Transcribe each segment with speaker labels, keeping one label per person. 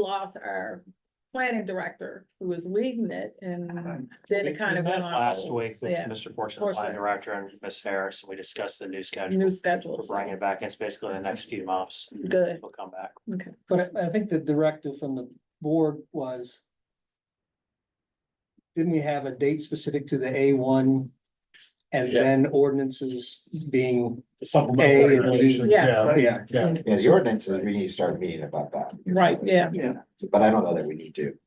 Speaker 1: lost our planning director who was leading it and then it kind of
Speaker 2: We
Speaker 1: went
Speaker 2: met
Speaker 1: on.
Speaker 2: Last week, the-
Speaker 1: Yeah.
Speaker 2: Mr. Fortune, the
Speaker 1: Fortune.
Speaker 2: line director, and Ms. Harris, and we discussed the new schedule.
Speaker 1: New
Speaker 2: We're
Speaker 1: schedules.
Speaker 2: bringing it back. It's basically the next few months.
Speaker 1: Good,
Speaker 2: We'll come back.
Speaker 1: okay.
Speaker 3: But I I think the directive from the board was. Didn't we have a date specific to the A one? And
Speaker 4: Yeah.
Speaker 3: then ordinances being, A
Speaker 4: Supplemental
Speaker 3: and B.
Speaker 4: regulations,
Speaker 1: Yes.
Speaker 4: yeah,
Speaker 3: yeah,
Speaker 4: yeah.
Speaker 5: Yeah, the ordinances, we need to start meeting about that.
Speaker 1: Right, yeah.
Speaker 3: Yeah.
Speaker 5: But I don't know that we need to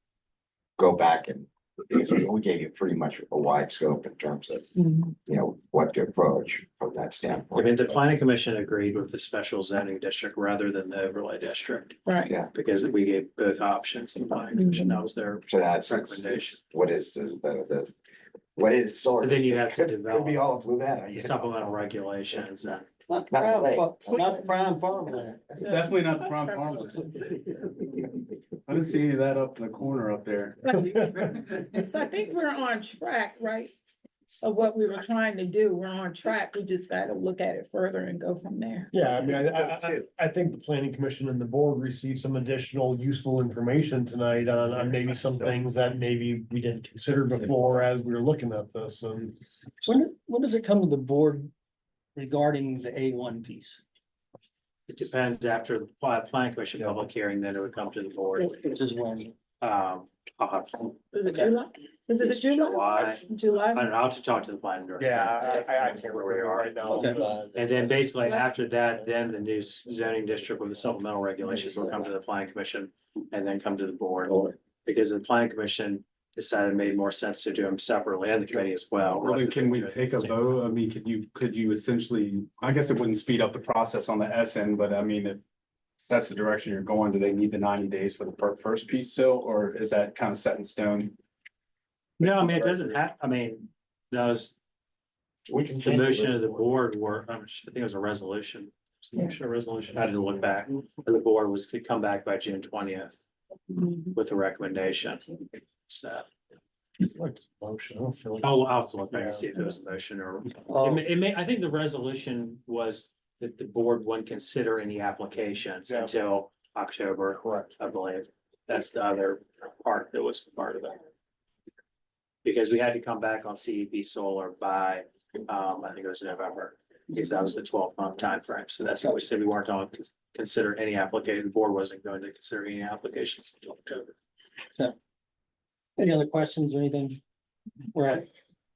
Speaker 5: go back and, because we gave you pretty much a wide scope in terms of,
Speaker 1: Mhm.
Speaker 5: you know, what to approach from that
Speaker 2: I mean,
Speaker 5: standpoint.
Speaker 2: the planning commission agreed with the special zoning district rather than the overlay district,
Speaker 1: Right,
Speaker 2: because we gave both options in the planning commission. That was their
Speaker 5: So that's,
Speaker 2: recommendation.
Speaker 5: what is the, the, the- what is sort
Speaker 2: But
Speaker 5: of.
Speaker 2: then you have to
Speaker 5: Could be
Speaker 2: develop
Speaker 5: all of Lubetta. you know?
Speaker 2: supplemental regulations. and-
Speaker 3: not
Speaker 5: Not
Speaker 3: prime,
Speaker 5: like-
Speaker 3: fa- not prime farmland.
Speaker 6: Definitely not prime farmland. I didn't see any of that up in the corner up there.
Speaker 1: so I think we're on track, right? Of what we were trying to do, we're on track, we just gotta look at it further and go from there.
Speaker 4: Yeah, I mean, I, I, I- I think the planning commission and the board received some additional useful information tonight on, on maybe some things that maybe we didn't consider before as we were looking at this and.
Speaker 3: When, when does it come to the board regarding the A one piece?
Speaker 2: It depends after the pla- planning commission public hearing, then it would come to the board.
Speaker 3: Which is when,
Speaker 2: Um, I'll have to-
Speaker 1: Is it
Speaker 3: Okay.
Speaker 1: July? Is it
Speaker 2: It's
Speaker 1: July?
Speaker 2: July.
Speaker 1: July?
Speaker 2: I don't know, I'll have to talk to the planning director. Where we are. And then basically after that, then the new zoning district with the supplemental regulations will come to the planning commission and then come to the board. Because the planning commission decided it made more sense to do them separately and the committee as well.
Speaker 6: Well, then can we take a vote? I mean, could you, could you essentially, I guess it wouldn't speed up the process on the S end, but I mean, if. That's the direction you're going, do they need the ninety days for the per- first piece still, or is that kind of set in stone?
Speaker 2: No, I mean, it doesn't have, I mean, those,
Speaker 5: We can.
Speaker 2: the motion of the board were, I think it was a resolution. It was a Motion or resolution, I had to look back, the board was to come back by June twentieth
Speaker 1: Mhm.
Speaker 2: with a recommendation. So
Speaker 4: Motion, I don't feel like-
Speaker 2: I'll, I'll have to look back and see if it was a motion or It
Speaker 4: Um,
Speaker 7: Oh.
Speaker 2: may, it may, I think the resolution was that the board wouldn't consider any applications
Speaker 4: Yeah.
Speaker 2: until October,
Speaker 4: Correct.
Speaker 2: I believe. That's the other part that was part of it. Because we had to come back on CEP solar by, um, I think it was November, because that was the twelve month timeframe. So that's why we said we weren't going to consider any application, the board wasn't going to consider any applications until October.
Speaker 3: any other questions or anything? We're at.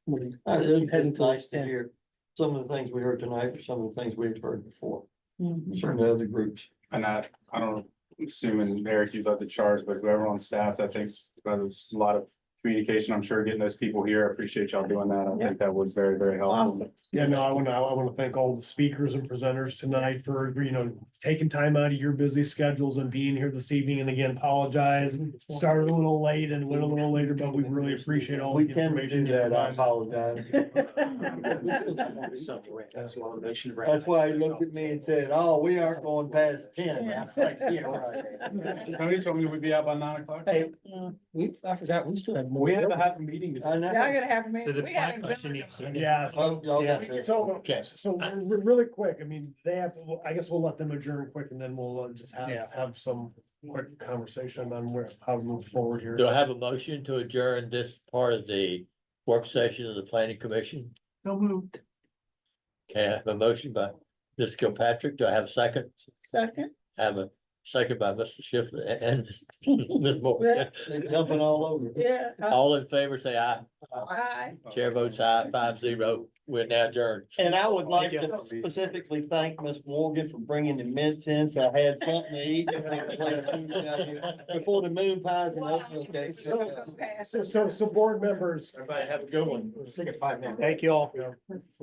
Speaker 3: we're heading
Speaker 7: It's
Speaker 3: to
Speaker 7: nice to hear some of the things we heard tonight, some of the things we've heard before,
Speaker 1: Mhm.
Speaker 7: certainly other groups.
Speaker 6: And I, I don't, I'm assuming Eric, you led the charge, but whoever on staff, I think there's a lot of communication, I'm sure getting those people here, I appreciate y'all doing that, I think that was very, very helpful.
Speaker 1: Awesome.
Speaker 4: Yeah, no, I want to, I want to thank all the speakers and presenters tonight for, you know, taking time out of your busy schedules and being here this evening. And again, apologize, started a little late and went a little later, but we really appreciate all the
Speaker 7: We tend to
Speaker 4: information.
Speaker 7: do
Speaker 4: you
Speaker 7: that, I
Speaker 4: provided.
Speaker 7: apologize.
Speaker 2: That's why I mentioned-
Speaker 7: That's why he looked at me and said, oh, we aren't going past ten. I was like, "Yeah, right."
Speaker 6: Tony told me we'd be out by nine o'clock.
Speaker 3: Hey,
Speaker 1: Yeah.
Speaker 3: we, I forgot, we still have more.
Speaker 6: We had to have a meeting.
Speaker 7: I know.
Speaker 1: Y'all gotta have me.
Speaker 2: So the
Speaker 1: we haven't
Speaker 2: planning commission
Speaker 1: done
Speaker 2: needs to.
Speaker 1: it.
Speaker 4: Yeah,
Speaker 7: Oh,
Speaker 4: so,
Speaker 7: y'all got this.
Speaker 4: so, okay, so
Speaker 7: Uh,
Speaker 4: re- really quick, I mean, they have, I guess we'll let them adjourn quick and then we'll uh, just have,
Speaker 8: Yeah.
Speaker 4: have some quick conversation on where, how to move forward here.
Speaker 8: Do I have a motion to adjourn this part of the work session of the planning commission? Okay, I have a motion by Ms. Kilpatrick. Do I have a second?
Speaker 1: Second.
Speaker 8: I Have a second by Mr. Schiff and Ms. Moore.
Speaker 7: They're jumping all over.
Speaker 1: Yeah. uh,
Speaker 8: All in favor, say aye.
Speaker 1: Aye.
Speaker 8: Chair votes aye, five zero. We're now adjourned.
Speaker 7: And I would like to specifically thank Miss Morgan for bringing the mints in, so I had something to eat. Before the moon pies and oatmeal cakes.
Speaker 4: So, so, so board members.
Speaker 7: Everybody have a good one.
Speaker 4: Take a five minute. Thank you all.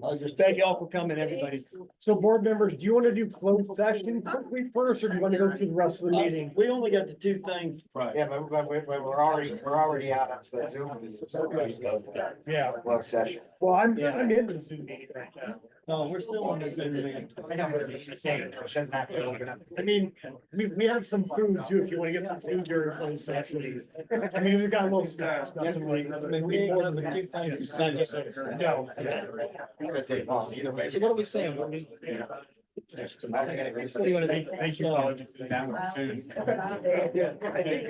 Speaker 7: I'll just thank y'all for coming, everybody.
Speaker 4: So board members, do you want to do closed session quickly first, or do you want to go through the rest
Speaker 7: Uh,
Speaker 4: of the meeting?
Speaker 7: We only got the two things.
Speaker 6: Right.
Speaker 5: Yeah, but, but we're, but we're already, we're already out of the Zoom.
Speaker 4: Yeah,
Speaker 5: Work session.
Speaker 4: well, I'm, I'm in the Zoom meeting right now.
Speaker 7: No, we're still on the good meeting.
Speaker 5: I know, but it's- it doesn't have to open up.
Speaker 4: I mean, we, we have some food too, if you want to get some food during closed session. I mean, we've got a little snacks, nothing like.
Speaker 7: I mean, we ain't gonna do things you signed up for.
Speaker 4: No.
Speaker 5: Either way.
Speaker 3: So what are we saying? What do
Speaker 5: I think it is.
Speaker 3: you want to think?
Speaker 6: Thank you. Colin.
Speaker 5: Yeah. I think-